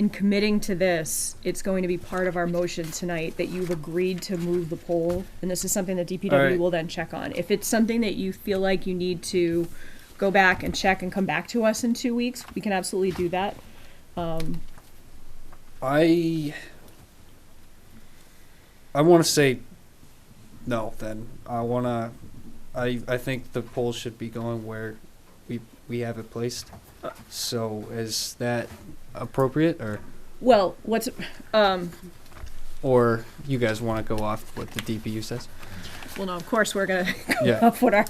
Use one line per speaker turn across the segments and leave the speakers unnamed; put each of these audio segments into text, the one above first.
in committing to this, it's going to be part of our motion tonight that you've agreed to move the pole, and this is something that
All
DPW
right.
will then check on. If it's something that you feel like you need to go back and check and come back to us in two weeks, we can absolutely do that. Um,
I I want to say no. Then I want to. I I think the poll should be going where we we have it placed. So is that appropriate, or
well, what's, um,
or you guys want to go off what the DPU says?
well, no, of course, we're gonna
Yeah.
up what our,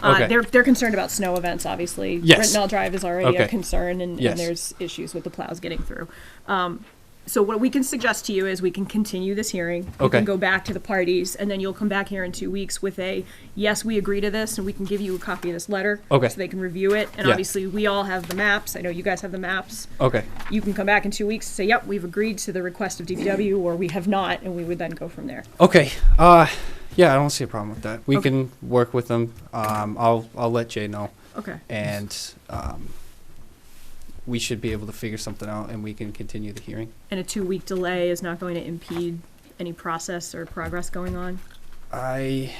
uh,
Okay.
they're, they're concerned about snow events, obviously.
Yes.
Rittenell Drive is already a
Okay.
concern and,
Yes.
and there's issues with the plows getting through. Um, so what we can suggest to you is we can continue this hearing. You
Okay.
can go back to the parties and then you'll come back here in two weeks with a, yes, we agree to this and we can give you a copy of this letter.
Okay.
So they can review it. And
Yeah.
obviously, we all have the maps. I know you guys have the maps.
Okay.
You can come back in two weeks and say, yep, we've agreed to the request of DPW or we have not, and we would then go from there.
Okay. Uh, yeah, I don't see a problem with that. We
Okay.
can work with them. Um, I'll I'll let Jay know,
Okay.
and um, we should be able to figure something out, and we can continue the hearing.
and a two-week delay is not going to impede any process or progress going on?
I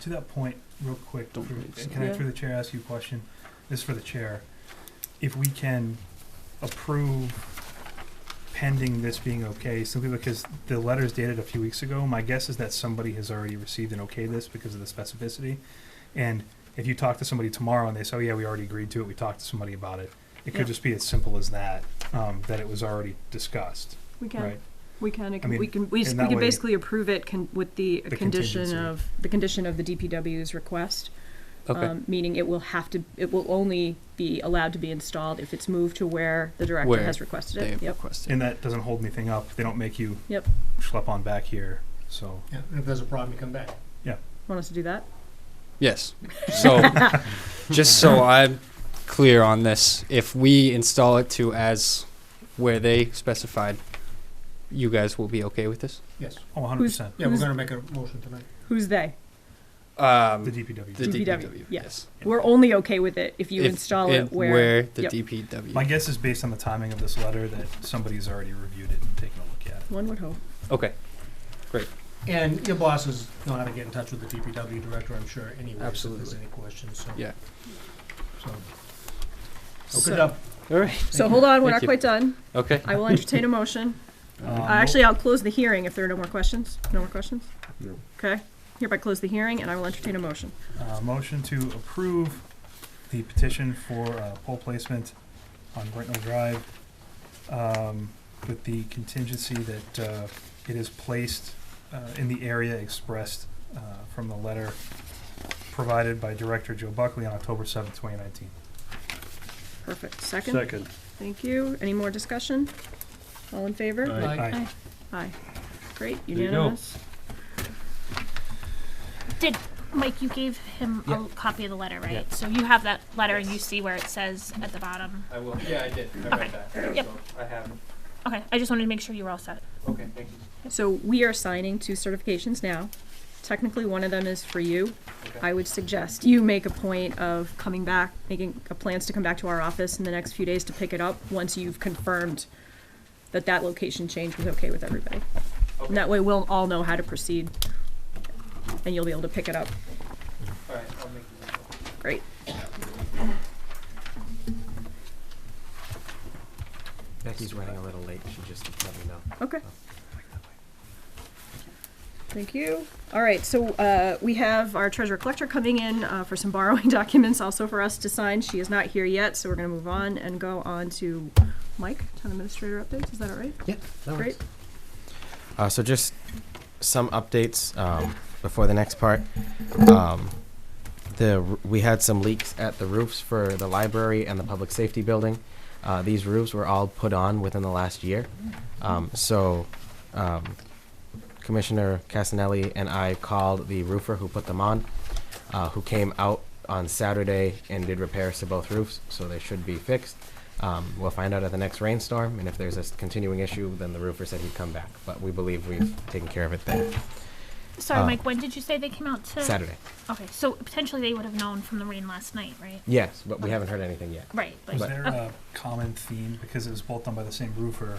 To that point, real quick,
Don't
through-
believe so.
can I,
Yeah.
through the chair, ask you a question? This is for the chair. If we can approve pending this being okay, simply because the letter's dated a few weeks ago, my guess is that somebody has already received an okay this because of the specificity. And if you talk to somebody tomorrow and they say, oh yeah, we already agreed to it, we talked to somebody about it, it
Yeah.
could just be as simple as that, um, that it was already discussed,
We can,
right?
we can, it
I
can,
mean,
we can, we just,
in
we
that
can
way-
basically approve it con, with the
The
condition
contingency.
of, the condition of the DPW's request.
okay.
um, Meaning it will have to, it will only be allowed to be installed if it's moved to where the director
Where
has requested
they
it. Yep,
requested.
And that doesn't hold anything up. They don't make you
Yep.
schlep on back here, so.
Yeah, and if there's a problem, you come back.
want us to do that?
Yes. So, just so I'm clear on this, if we install it to as where they specified, you guys will be okay with this?
Yes.
Oh, 100%.
Yeah, we're
Who's-
gonna make a motion tonight.
Who's they?
The
Um,
DPW.
the
DPW,
DPW,
yeah.
yes.
We're only okay with it if you
If-
install it
if-
where,
the
yep.
DPW.
My guess is based on the timing of this letter that somebody's already reviewed it and taken a look at it.
one would hope.
Okay,
And your bosses know how to get in touch with the DPW director, I'm sure, anyway, if there's
Absolutely.
any questions, so.
Yeah.
So,
So-
good up.
all right,
So hold on, we're
Thank
not
you.
quite done.
okay.
I will entertain a motion.
Um,
Uh, Actually, I'll close the hearing if there are no more questions. No more questions?
No.
Okay, hereby close the hearing and I will entertain a motion.
Uh, motion to approve the petition for uh, pole placement on Brittenell Drive um, with the contingency that uh, it is placed uh, in the area expressed uh, from the letter provided by Director Joe Buckley on October seventh, 2019.
Perfect. Second? Thank you. Any more discussion? All in favor?
Aye.
Aye.
Aye. Great,
you go.
unanimous.
Mike, you gave him a copy of the letter, right?
Yeah.
So you have that letter and you see where it says at the bottom.
I will, yeah, I did, I
read
that.
Yep.
I have,
Okay, I just wanted to make sure you were all set.
okay, thank you.
So we are signing two certifications now. Technically, one of them is for you. I would suggest you make a point of coming back, making uh, plans to come back to our office in the next few days to pick it up once you've confirmed that that location change was okay with everybody. And that way, we'll all know how to proceed, and you'll be able to pick it up.
All right, I'll make it.
Great.
Becky's running a little late, she just let me know.
Okay. Thank you. All right, so uh, we have our treasurer collector coming in uh, for some borrowing documents also for us to sign. She is not here yet, so we're going to move on and go on to Mike, town administrator updates. Is that all right?
Yeah, no worries.
Great.
Uh, so just some updates um, before the next part. Um, the r- we had some leaks at the roofs for the library and the public safety building. Uh, these roofs were all put on within the last year. Um, so um, Commissioner Casanelli and I called the roofer who put them on, uh, who came out on Saturday and did repairs to both roofs, so they should be fixed. Um, we'll find out at the next rainstorm, and if there's a s- continuing issue, then the roofer said he'd come back. But we believe we've taken care of it then.
Sorry,
Uh,
Mike, when did you say they came out to?
Saturday.
Okay, so potentially they would have known from the rain last night, right?
Yes, but we haven't heard anything yet.
Right,
Was
but
there a common theme, because it was both done by the same roofer,